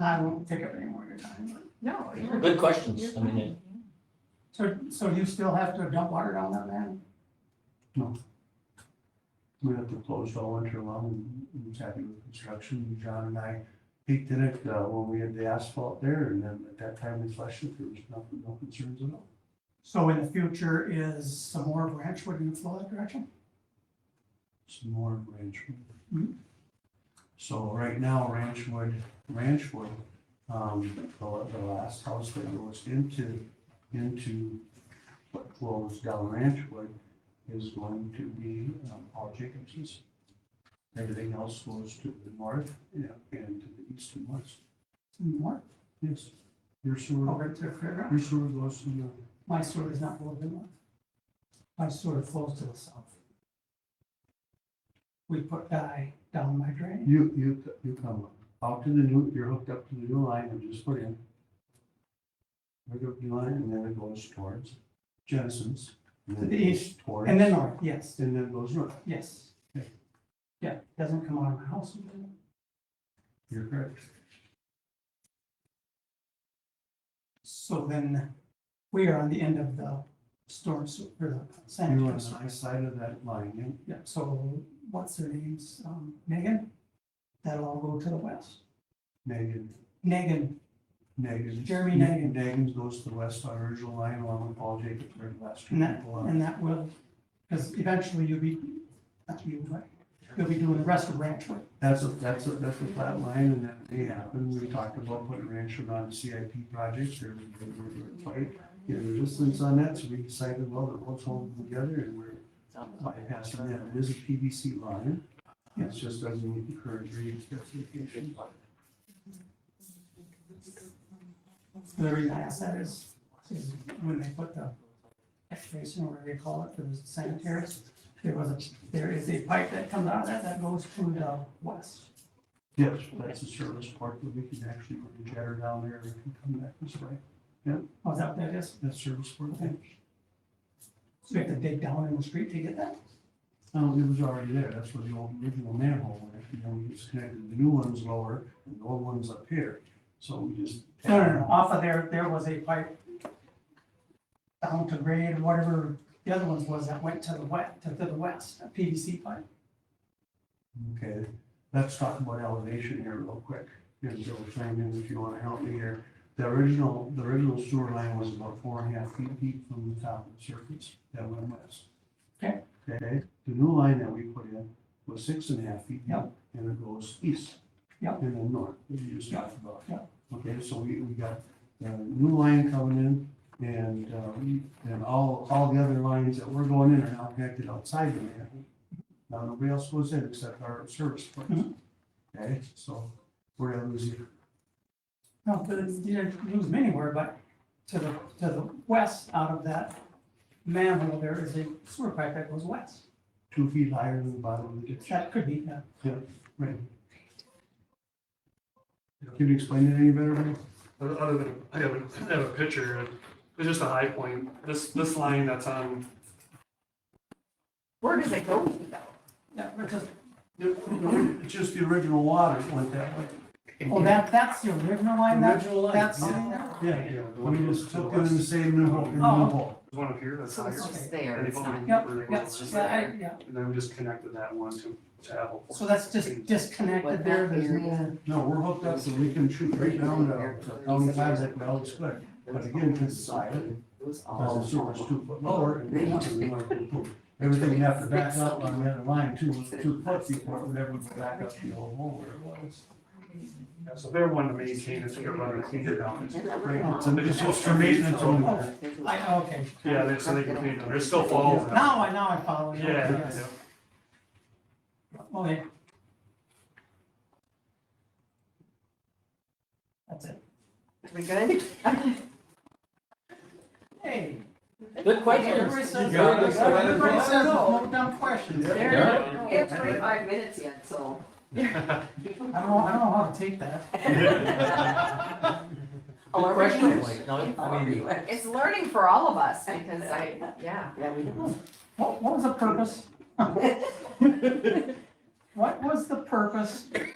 I won't take up any more of your time. No. you're- Good questions, I you're mean, fine. So, so you still have to dump water down that land? We have to close all winter long and was happy with construction. John and I peeked in it uh, when we had the asphalt there and then at that time we flushed it, there was nothing, no concerns at all. So in the future, is some more branch would you flow that direction? Some more ranch. wood. Mhm. So right now, ranch wood, ranch wood, um, the, the last house that goes into, into what flows down ranch wood is going to be um, Paul Jacobson's. Everything else goes to the north and and to the east and west. Some more, Yes, your sewer, over to the fairground? your sewer goes to the, My sewer is not flowing north. My sewer flows to the south. We put dye down my drain. you, you, you come out to the new, you're hooked up to the new line and just put in. Hook up the line and then it goes towards Jensen's. and then To the it goes Towards. And then north, yes, And then goes north. yes. Yeah, doesn't come out of my house. You're correct. So then we are on the end of the storm sewer, or the You're on sanitary the sewer. right side of that line. and Yeah, so what's her name's, um, Megan? That'll all go to the west. Megan, Megan, Megan. Jeremy Nagin. Nagin goes to the west on original line along with Paul Jacobs, very last. and that, and that will, because eventually you'll be, that's you, right? You'll be doing the rest of Ranch Road. That's a, that's a, that's a flat line and that may happen. We talked about putting ranch around CIP projects or fight. You know, resistance on that, so we decided, well, that let's hold them together and we're bypassing that. It is a PVC line. It just doesn't meet the current read specification. The reason I ask that is, is when they put the excavation, whatever they call it, for the sanitary, there was a, there is a pipe that comes out of that, that goes to the west. Yes, that's a service part that we can actually put the jetter down there and can come back this way. Oh, is that what that is? That's service part. So you have to dig down in the street to get that? Um, it was already there. That's where the old original manhole went. You know, we just connected the new ones lower and the old ones up here. So we just. No, no, no, off of there, there was a pipe down to grade, whatever the other ones was that went to the west, to the west, a PVC pipe. Okay, let's talk about elevation here real quick. Here's Bill Flannery, if you want to help me here. The original, the original sewer line was about four and a half feet deep from the top of the surface that went west. Okay. Okay, the new line that we put in was six and a half feet. deep, Yep. And it goes east. Yep. And then north, as you just talked about. Yep. Okay, so we, we got the new line coming in and, um, and all, all the other lines that were going in are now connected outside the manhole. Now, nobody else goes in except our service place. Mhm. Okay, so we're gonna lose you. No, but it didn't lose them anywhere, but to the, to the west out of that manhole, there is a sewer pipe that goes west. two feet higher than the bottom of the ditch. That could be, uh, Right. Can you explain it any better? Rick? Other than, I have, a I have a picture, it's just a high point, this, this line that's on, Where does it go to though? that, which is- It's Just the original water went that way. oh, that, that's the original line, that, Original line, that's yeah. sitting there? Yeah, yeah, we the one just that's to the took it in the west. same new hole, new Oh. hole. There's one up here that's So higher. it's just there, And they it's put not. it Yep, where they go yep, so over I, there. yeah, And then we just connected that one to, to Apple. so that's just disconnected there, there's no, No, we're hooked up so we can shoot right down to, to down the sides that well, it's good. But again, it's silent. All the sewers two foot lower and we want to, we want to improve. Everything have to back up on the other line two, two foot before we ever go back up the old hole where it was. Yeah, So they're one to maintain, it's gonna run and clean it down. Right, so it's just for maintenance only. I, okay. Yeah, they, so they can clean it, there's still falls. in it. Now I, now I follow you. Yeah, Yes. yeah. Okay. That's it. We good? Hey. Good Everybody questions. says, got it. everybody says no dumb questions. I There, don't Yeah. we have twenty-five minutes yet, so. know, I don't know how to take that. Good question, like, no, I mean, It's learning for all of us because I, yeah. Yeah, we do. What, what was the purpose? What was the purpose